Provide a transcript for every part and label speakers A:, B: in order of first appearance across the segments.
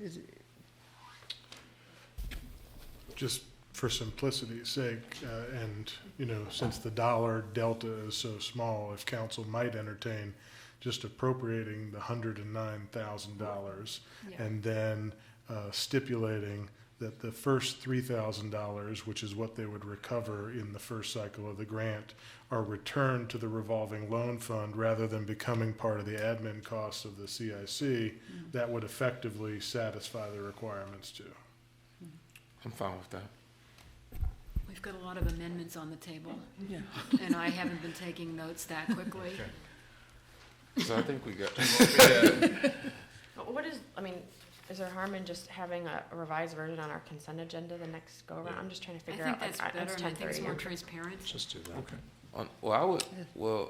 A: Is it-
B: just for simplicity's sake, uh, and, you know, since the dollar delta is so small, if council might entertain just appropriating the hundred and nine thousand dollars
C: Yeah,
B: and then uh, stipulating that the first three thousand dollars, which is what they would recover in the first cycle of the grant, are returned to the revolving loan fund rather than becoming part of the admin costs of the CIC,
C: Mm-hmm.
B: that would effectively satisfy the requirements too.
D: I'm fine with that.
C: we've got a lot of amendments on the table,
A: yeah.
C: and I haven't been taking notes that quickly.
D: So I think we got,
E: But What is, I mean, is there harm in just having a revised version on our consent agenda the next go around? I'm just trying to
C: I
E: figure
C: think
E: out.
C: that's
E: like, I-
C: better, and I
E: ten
C: think it's
E: thirty.
C: more transparent.
F: Just do that.
D: Okay. on, well, I would, well,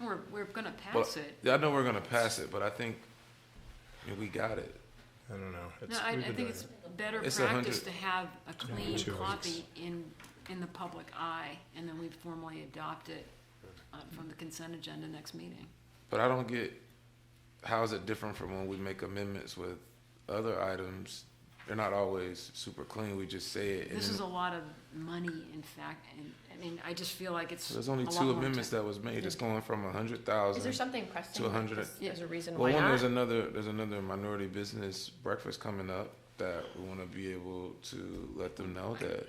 C: We're, we're gonna
D: but,
C: pass it.
D: I know we're gonna pass it, but I think, I mean, we got it.
F: I don't know. It's-
C: No, I,
F: we've
C: I think
F: been doing
C: it's
F: it.
C: better
D: It's a
C: practice
D: hundred-
C: to have a clean
F: two
C: copy
F: hundreds.
C: in, in the public eye, and then we formally adopt it uh, from the consent agenda next meeting.
D: But I don't get, how is it different from when we make amendments with other items? They're not always super clean, we just say it. and
C: This is a
D: then-
C: lot of money, in fact, and, I mean, I just feel like it's.
D: So There's only
C: a lot
D: two
C: more
D: amendments
C: ti-
D: that was made, it's going from a hundred
E: Is there
D: thousand.
E: something pressing?
D: To a
E: like
D: hundred
E: this-
D: and-
E: There's a reason why
D: Well, one,
E: not?
D: there's another, there's another minority business breakfast coming up that we wanna be able to let them know that,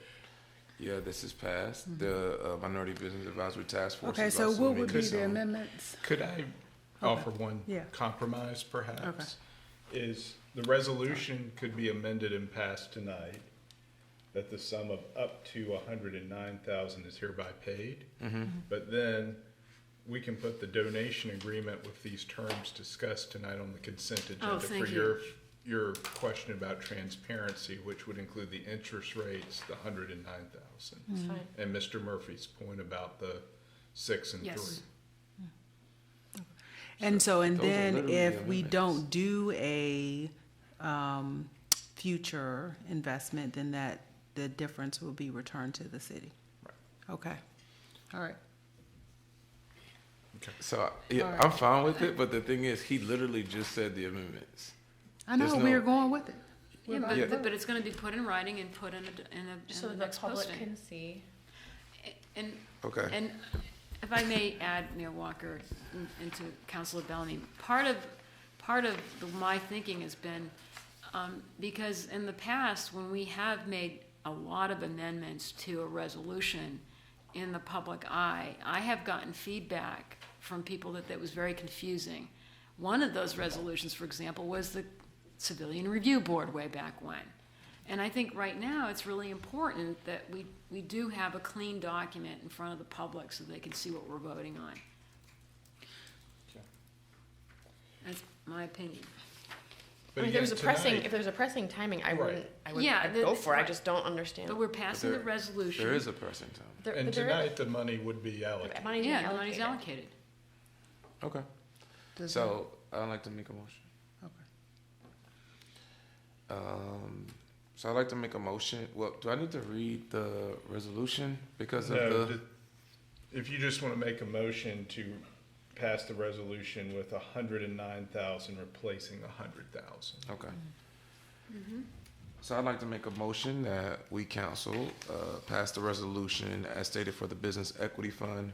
D: yeah, this is passed. The uh, Minority Business Advisory Task Force
A: Mm-hmm. Okay,
D: is
A: so
D: also
A: what would be
D: making
A: the
D: some-
A: amendments?
F: Could I offer one
A: Yeah.
F: compromise perhaps? Is the resolution could be amended and passed tonight, that the sum of up to hundred and nine thousand is hereby paid.
C: Mm-hmm.
F: But then we can put the donation agreement with these terms discussed tonight on the consent agenda for
C: Oh, thank you.
F: your, your question about transparency, which would include the interest rates, the hundred and nine
E: It's
C: Mm.
F: thousand.
E: fine.
F: And Mr. Murphy's point about the six and three.
C: Yes.
G: And so, and
D: Those are
G: then
D: literally
G: if we
D: amendments.
G: don't do a, um, future investment, then that, the difference will be returned to the city. Okay, all right.
D: So yeah, I'm fine with it, but the thing is, he literally just said the amendments.
G: I
D: There's
G: know, we
D: no-
G: are going with it.
C: Yeah,
D: Yeah.
C: but, but it's gonna be put in writing and put in a, in a,
E: So
C: in the
E: the
C: next
E: public
C: posting.
E: can see.
C: And,
D: Okay.
C: and if I may add, Mayor Walker, in- into Councilor Bellamy, part of, part of the- my thinking has been, um, because in the past, when we have made a lot of amendments to a resolution in the public eye, I have gotten feedback from people that that was very confusing. One of those resolutions, for example, was the Civilian Review Board way back when. And I think right now, it's really important that we, we do have a clean document in front of the public so they can see what we're voting on. That's my opinion.
E: I
F: But
E: mean, if there's a
F: again,
E: pressing,
F: tonight-
E: if there's a pressing timing, I
F: Right.
E: wouldn't, I wouldn't
C: Yeah,
E: I'd
C: the-
E: go for it. I
C: right.
E: just don't understand.
C: But we're passing the
D: There-
C: resolution.
D: There is a person time.
E: There-
F: And
E: but there is-
F: tonight, the money would be
E: the
F: allocated.
E: money's being
C: Yeah, the money's
E: allocated.
C: allocated.
D: Okay.
A: Does
D: So I'd like to make a motion.
G: Okay.
D: Um, so I'd like to make a motion. Well, do I need to read the resolution because of
F: No,
D: the?
F: ju- if you just want to make a motion to pass the resolution with a hundred and nine thousand replacing a hundred thousand.
D: Okay. So I'd like to make a motion that we council uh, pass the resolution as stated for the Business Equity Fund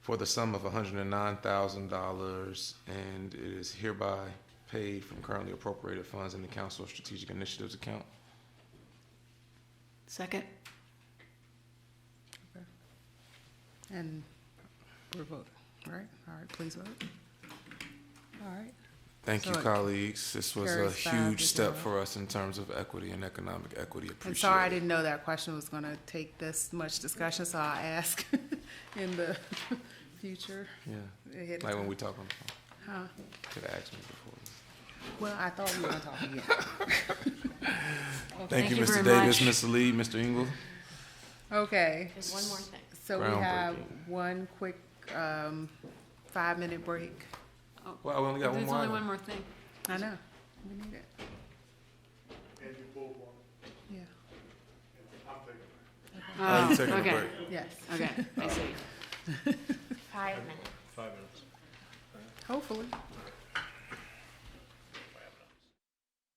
D: for the sum of $109,000, and it is hereby paid from currently appropriated funds in the Council of Strategic Initiatives account.
C: Second?
G: And we're voting, right? All right, please vote. All right,
D: Thank you,
G: So it
D: colleagues. This was a
G: carries five
D: huge
G: to
D: step
G: zero.
D: for us in terms of equity and economic equity.
G: I'm sorry, I
D: Appreciate it.
G: didn't know that question was gonna take this much discussion, so I'll ask in the future.
D: Yeah,
G: ahead of
D: like when
G: time.
D: we talk on the
G: Huh.
D: phone. Could have asked me before.
G: Well, I thought we were gonna talk again.
D: Thank you, Mr.
C: very
D: Davis,
C: much.
D: Mr. Lee, Mr. Engel.
G: Okay.
E: There's one more thing.
G: So we have
D: Groundbreaking.
G: one quick, um, five-minute break.
D: Well, we only got one
C: There's
D: more.
C: only
D: item.
C: one more thing.
G: I know, we need it, yeah,
D: Oh,
C: Oh,
D: you're taking a
C: okay.
D: break.
G: yes.
C: Okay, I see.
E: Five minutes.
F: Five minutes.
G: Hopefully.